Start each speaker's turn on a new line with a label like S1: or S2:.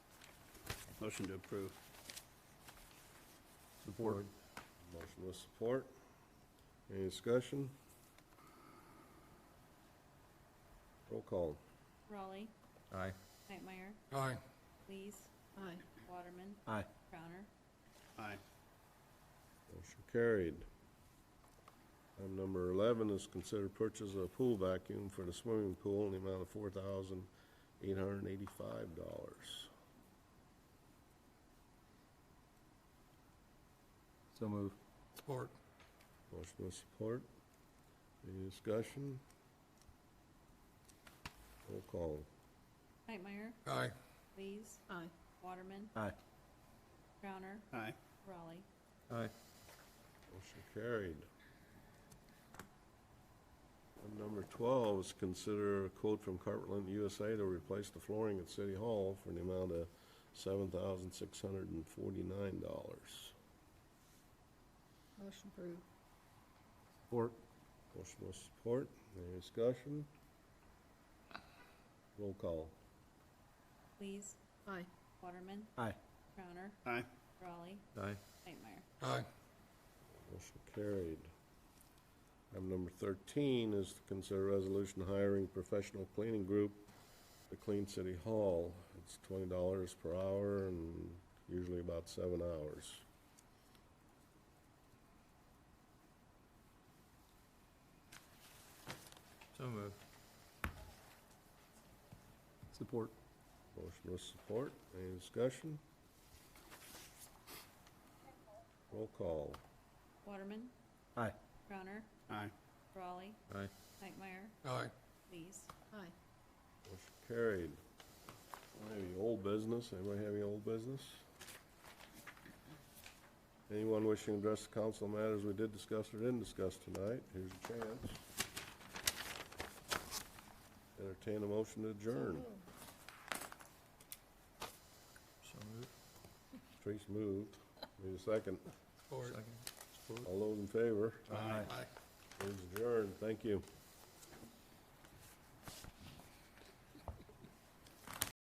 S1: Motion to approve.
S2: Support.
S3: Motion with support. Any discussion? Roll call.
S4: Raleigh.
S2: Aye.
S4: Knightmeyer.
S5: Aye.
S4: Lees.
S6: Aye.
S4: Waterman.
S2: Aye.
S4: Crowner.
S1: Aye.
S3: Motion carried. Item number eleven is consider purchase of a pool vacuum for the swimming pool in the amount of four thousand eight hundred and eighty-five dollars.
S2: So move.
S5: Support.
S3: Motion with support. Any discussion? Roll call.
S4: Knightmeyer.
S5: Aye.
S4: Lees.
S6: Aye.
S4: Waterman.
S2: Aye.
S4: Crowner.
S1: Aye.
S4: Raleigh.
S2: Aye.
S3: Motion carried. Item number twelve is consider a quote from Cartland USA to replace the flooring at City Hall for an amount of seven thousand six hundred and forty-nine dollars.
S6: Motion approved.
S2: Support.
S3: Motion with support. Any discussion? Roll call.
S4: Lees.
S6: Aye.
S4: Waterman.
S2: Aye.
S4: Crowner.
S1: Aye.
S4: Raleigh.
S2: Aye.
S4: Knightmeyer.
S5: Aye.
S3: Motion carried. Item number thirteen is to consider resolution hiring professional cleaning group to clean City Hall. It's twenty dollars per hour and usually about seven hours.
S2: So move. Support.
S3: Motion with support. Any discussion? Roll call.
S4: Waterman.
S2: Aye.
S4: Crowner.
S1: Aye.
S4: Raleigh.
S2: Aye.
S4: Knightmeyer.
S5: Aye.
S4: Lees.
S6: Aye.
S3: Motion carried. Any old business? Anybody have any old business? Anyone wishing to address the council on matters we did discuss or didn't discuss tonight? Here's a chance. Entertain a motion to adjourn.
S2: So move.
S3: Trace moved. Need a second.
S5: Support.
S3: All those in favor?
S2: Aye.
S5: Aye.
S3: Please adjourn. Thank you.